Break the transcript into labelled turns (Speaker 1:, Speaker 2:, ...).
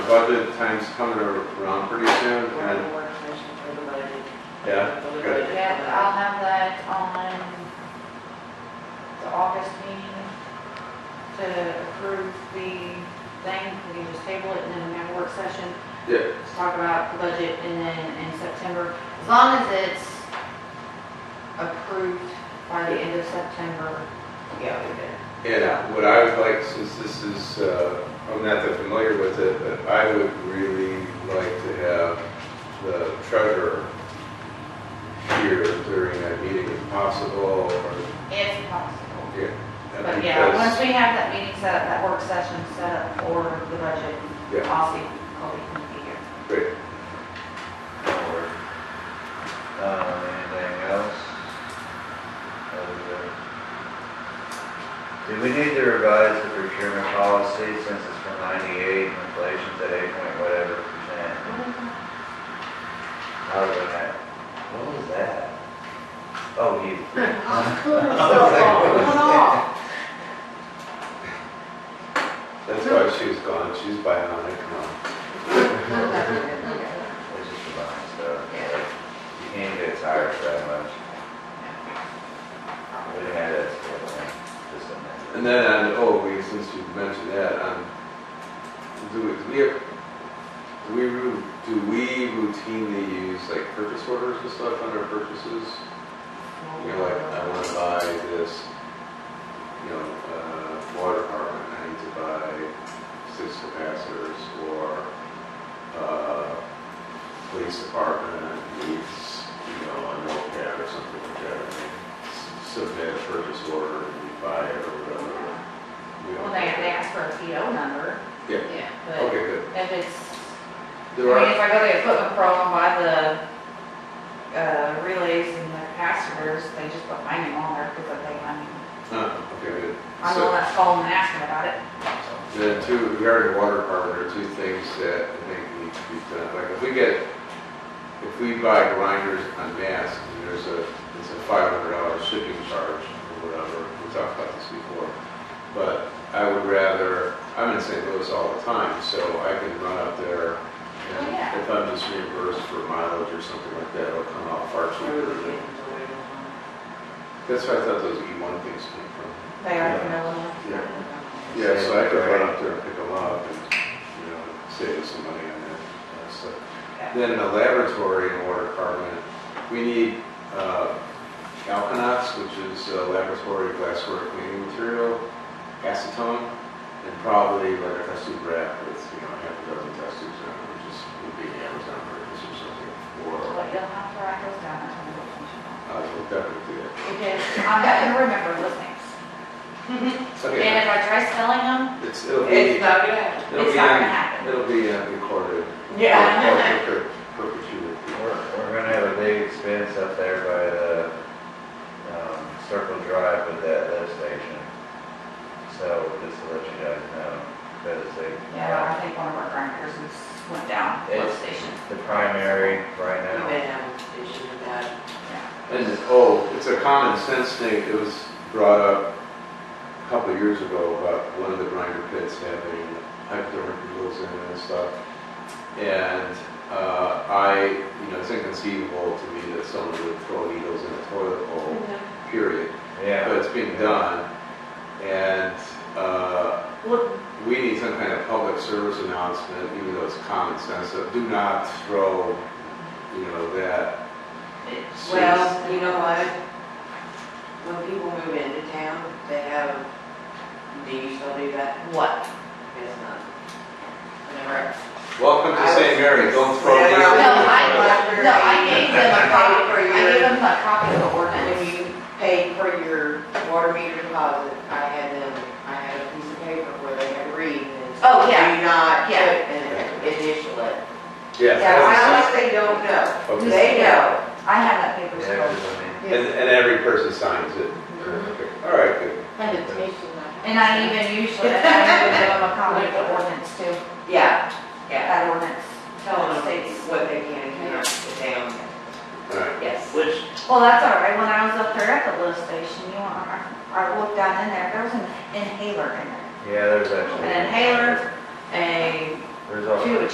Speaker 1: budget time's coming around pretty soon,
Speaker 2: We're
Speaker 1: and,
Speaker 2: in the work session for the budget.
Speaker 1: yeah,
Speaker 2: For the
Speaker 1: good.
Speaker 2: budget.
Speaker 3: Yeah, I'll have that on the August meeting to approve the thing, we can just table it and then we have a work session.
Speaker 1: Yeah.
Speaker 3: to talk about the budget and then in September, as long as it's approved by the end of September. Yeah, we did.
Speaker 1: And what I would like, since this is, uh, I'm not that familiar with it, but I would really like to have the treasurer here during that meeting if possible, or,
Speaker 3: If possible.
Speaker 1: yeah.
Speaker 3: But yeah, once
Speaker 1: because-
Speaker 3: we have that meeting set up, that work session set up for the budget,
Speaker 1: Yeah,
Speaker 3: I'll see, I'll be here.
Speaker 1: great.
Speaker 4: forward. Uh, anything else? Other than- Do we need to revise the procurement policy since it's from ninety-eight, and inflation's at eight point whatever percent? How was that? What was that? Oh, you.
Speaker 1: That's why she's gone, she's bionic now.
Speaker 4: It's just a bunch of stuff. You can't get tired that much. We had that sort of thing, just a minute.
Speaker 1: And then, on- oh, we, since you mentioned that, um, do we, do we, have- do we, ru- do we routinely use like purchase orders and stuff on our purchases? You're like, I want to buy this, you know, uh, water department, I need to buy six capacitors, or, uh, police department needs, you know, a notepad or something like that. and they Submit a purchase order, and we buy it or whatever. We don't-
Speaker 3: Well, they, they ask for a PO number.
Speaker 1: Yeah.
Speaker 3: But
Speaker 1: Okay, good.
Speaker 3: if it's I
Speaker 1: There
Speaker 3: mean,
Speaker 1: are,
Speaker 3: if I go to the equipment pro and buy the, uh, relays and the capacitors, they just put my name on there because they, I mean,
Speaker 1: uh, okay, good.
Speaker 3: I'm the
Speaker 1: So-
Speaker 3: one that's calling and asking about it.
Speaker 1: The two, regarding water department, are two things that I think need to be done. Like, if we get, if we buy grinders on mass, and there's a, it's a five hundred dollar shipping charge or whatever, we talked about this before. But I would rather, I'm in St. Louis all the time, so I can run up there and
Speaker 3: Oh, yeah.
Speaker 1: if I'm just reimbursed for mileage or something like that, it'll come out far cheaper than. That's why I thought those E one things came from.
Speaker 3: They are
Speaker 1: Yeah.
Speaker 3: from Illinois.
Speaker 1: Yeah.
Speaker 4: Yeah, so I could run
Speaker 1: up there and pick them up and, you know, save some money on that uh, stuff.
Speaker 3: Yeah.
Speaker 1: Then in the laboratory and water department, we need uh, Alkanox, which is uh, laboratory glassware cleaning material, acetone, and probably like a test tube wrap with, you know, half a dozen test tubes on it, which is would be Amazon purchase or something. Or,
Speaker 3: But you'll have to write those down, that's what I'm
Speaker 1: I will definitely do that.
Speaker 3: going Because I'm not gonna remember those names.
Speaker 1: It's okay.
Speaker 3: And if I try spelling them,
Speaker 1: It's, it'll be,
Speaker 3: it's not gonna happen.
Speaker 1: it'll
Speaker 3: It's
Speaker 1: be,
Speaker 3: not
Speaker 1: on-
Speaker 3: gonna happen.
Speaker 1: it'll be uh, recorded.
Speaker 3: Yeah.
Speaker 1: Or- or per- Perpetuity.
Speaker 4: We're, we're gonna have a big expense up there by the, um, Circle Drive with that lift station. So just to let you guys know, because they.
Speaker 3: Yeah, I think one of our grinders is, went down, lift
Speaker 4: It's-
Speaker 3: station.
Speaker 4: The primary right
Speaker 2: We've
Speaker 4: now.
Speaker 2: been having a issue with that.
Speaker 1: And, oh, it's a common sense thing, it was brought up a couple of years ago about one of the grinder pits having hypodermic needles in it and stuff. And, uh, I, you know, it's inconceivable to me that someone would throw needles in a toilet bowl, period. But
Speaker 4: Yeah,
Speaker 1: it's being done, and, uh,
Speaker 2: Well,
Speaker 1: we need some kind of public service announcement, even though it's common sense, of do not throw, you know, that.
Speaker 3: It's-
Speaker 2: well, you know what? When people move into town, they have, do you still do that?
Speaker 3: What?
Speaker 2: It's not. Whenever.
Speaker 1: Welcome to St. Mary, don't throw
Speaker 2: Yeah,
Speaker 1: needles.
Speaker 3: No,
Speaker 1: in the toilet.
Speaker 3: I, no, I gave them a copy, I gave them a copy of the
Speaker 2: When
Speaker 3: ordinance.
Speaker 2: you paid for your water meter deposit, I had them, I had a piece of paper where they had to read and. it said,
Speaker 3: Oh, yeah.
Speaker 2: Do not put
Speaker 3: Yeah.
Speaker 2: and initial it.
Speaker 1: Yeah.
Speaker 2: Yeah,
Speaker 1: that's-
Speaker 2: I honestly don't know.
Speaker 1: Okay.
Speaker 2: They know.
Speaker 3: I have that paper
Speaker 4: yeah,
Speaker 3: still.
Speaker 4: 'cause I mean,
Speaker 1: And, and every person signs it.
Speaker 2: Mm-hmm.
Speaker 1: All right, good.
Speaker 3: And I even usually, I even give them a copy of the ordinance too,
Speaker 2: Yeah, yeah.
Speaker 3: that ordinance,
Speaker 2: Tell them
Speaker 3: states.
Speaker 2: what they can and cannot put down.
Speaker 1: All right.
Speaker 2: Yes.
Speaker 5: Which,
Speaker 3: Well, that's all right, when I was up there at the lift station, you know, I, I looked down in there, there was an inhaler in there.
Speaker 4: Yeah, there's actually.
Speaker 3: An inhaler, a
Speaker 6: There's all.
Speaker 4: Two,